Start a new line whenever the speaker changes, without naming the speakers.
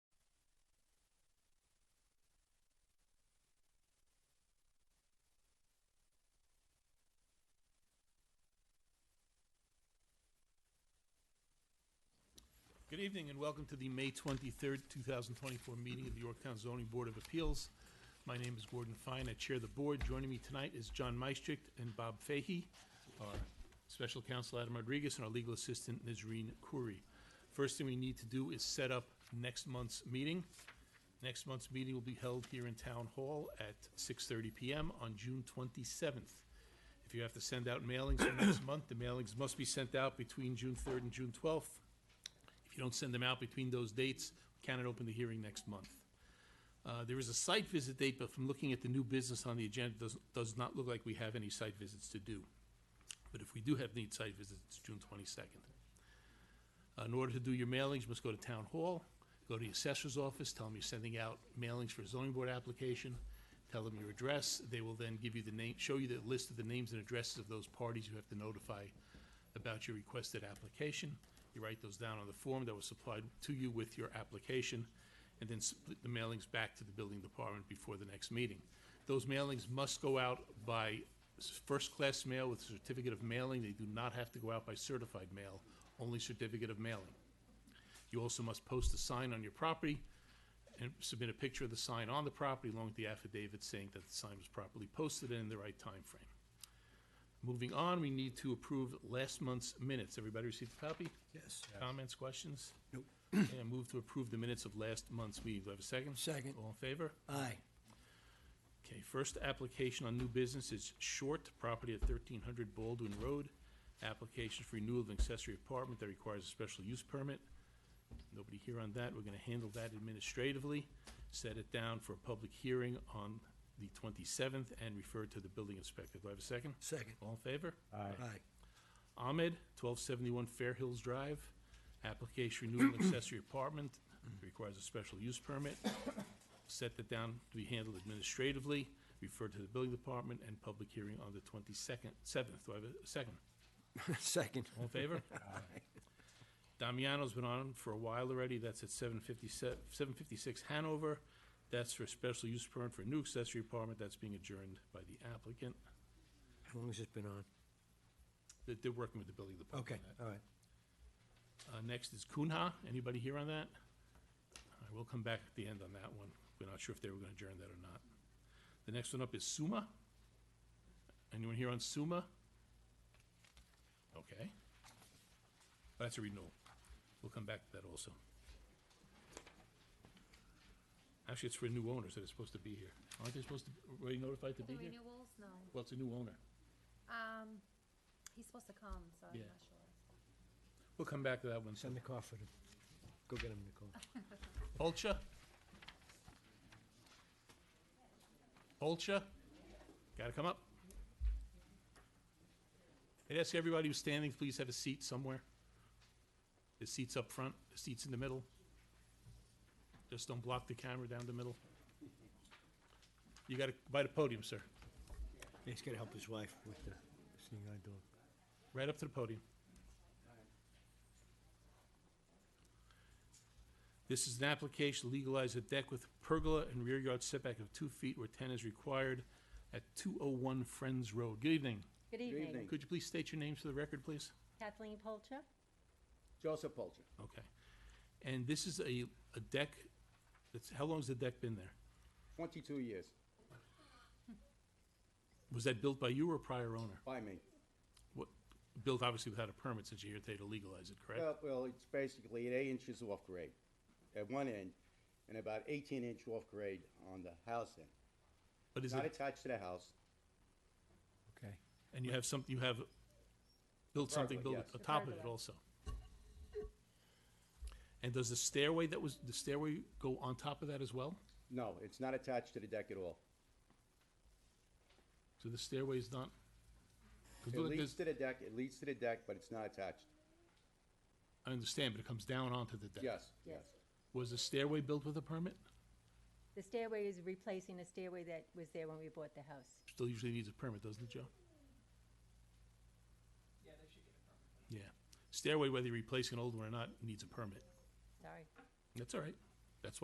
Good evening and welcome to the May 23rd, 2024 meeting of the Yorktown Zoning Board of Appeals. My name is Gordon Fine. I chair the board. Joining me tonight is John Meistricht and Bob Fahey, our special counsel Adam Rodriguez, and our legal assistant Nazreen Khoury. First thing we need to do is set up next month's meeting. Next month's meeting will be held here in Town Hall at 6:30 PM on June 27th. If you have to send out mailings for next month, the mailings must be sent out between June 3rd and June 12th. If you don't send them out between those dates, we cannot open the hearing next month. Uh, There is a site visit date, but from looking at the new business on the agenda, does, does not look like we have any site visits to do. But if we do have need site visits, it's June 22nd. Uh, In order to do your mailings, you must go to Town Hall, go to the assessor's office, tell them you're sending out mailings for a zoning board application, tell them your address, they will then give you the name, show you the list of the names and addresses of those parties you have to notify about your requested application. You write those down on the form that was supplied to you with your application, and then split the mailings back to the building department before the next meeting. Those mailings must go out by s- first-class mail with certificate of mailing. They do not have to go out by certified mail, only certificate of mailing. You also must post a sign on your property and submit a picture of the sign on the property along with the affidavit saying that the sign was properly posted and in the right time frame. Moving on, we need to approve last month's minutes. Everybody received a copy?
Yes.
Comments, questions?
Nope.
And move to approve the minutes of last month's meeting. Do I have a second?
Second.
All in favor?
Aye.
Okay, first application on new business is Short, property at thirteen hundred Baldwin Road. Application for renewal of an accessory apartment that requires a special use permit. Nobody here on that. We're gonna handle that administratively. Set it down for a public hearing on the twenty-seventh and refer it to the building inspector. Do I have a second?
Second.
All in favor?
Aye.
Ahmed, twelve seventy-one Fair Hills Drive. Application renewal and accessory apartment, requires a special use permit. Set that down to be handled administratively, referred to the building department and public hearing on the twenty-second, seventh, do I have a second?
Second.
All in favor? Damiano's been on for a while already, that's at seven fifty-seven, seven fifty-six Hanover. That's for a special use permit for a new accessory apartment, that's being adjourned by the applicant.
How long has this been on?
They're, they're working with the building department.
Okay,
on that.
all right.
Uh, next is Kunha. Anybody here on that? I will come back at the end on that one. We're not sure if they were gonna adjourn that or not. The next one up is Suma. Anyone here on Suma? Okay. That's a renewal. We'll come back to that also. Actually, it's for new owners that are supposed to be here. Aren't they supposed to, were they notified to
The
be here?
renewals, no.
Well, it's a new owner.
Um, he's supposed to come, so I'm
Yeah.
not sure.
We'll come back to that one.
Send the car for them. Go get them, Nicole.
Polcha? Polcha? Gotta come up. I'd ask everybody who's standing, please have a seat somewhere. The seat's up front, the seat's in the middle. Just don't block the camera down the middle. You gotta, by the podium, sir.
He's gotta help his wife with the sneaking dog.
Right up to the podium. This is an application to legalize a deck with pergola and rear yard setback of two feet where ten is required at two oh one Friends Road. Good evening.
Good evening.
Could you please state your names for the record, please?
Kathleen Polcher?
Joseph Polcher.
Okay. And this is a, a deck, that's, how long's the deck been there?
Twenty-two years,
Was that built by you or a prior owner?
by me.
What, built obviously without a permit since you're here today to legalize it, correct?
Well, well, it's basically at eight inches off grade at one end and about eighteen inch off grade on the house end.
But is
Not
it,
attached to the house.
Okay.
and you have some, you have built something
Pergola,
built
yes.
on top of it also? And does the stairway that was, the stairway go on top of that as well?
No, it's not attached to the deck at all.
So the stairway is not? 'cause
It
look at
leads
this-
to the deck, it leads to the deck, but it's not attached.
I understand, but it comes down onto the deck.
Yes, yes.
Yes.
Was the stairway built with a permit?
The stairway is replacing a stairway that was there when we bought the house.
Still usually needs a permit, doesn't it, Joe? Yeah, they should get a permit. Yeah. Stairway, whether you replace an old one or not, needs a permit.
Sorry.
That's all right.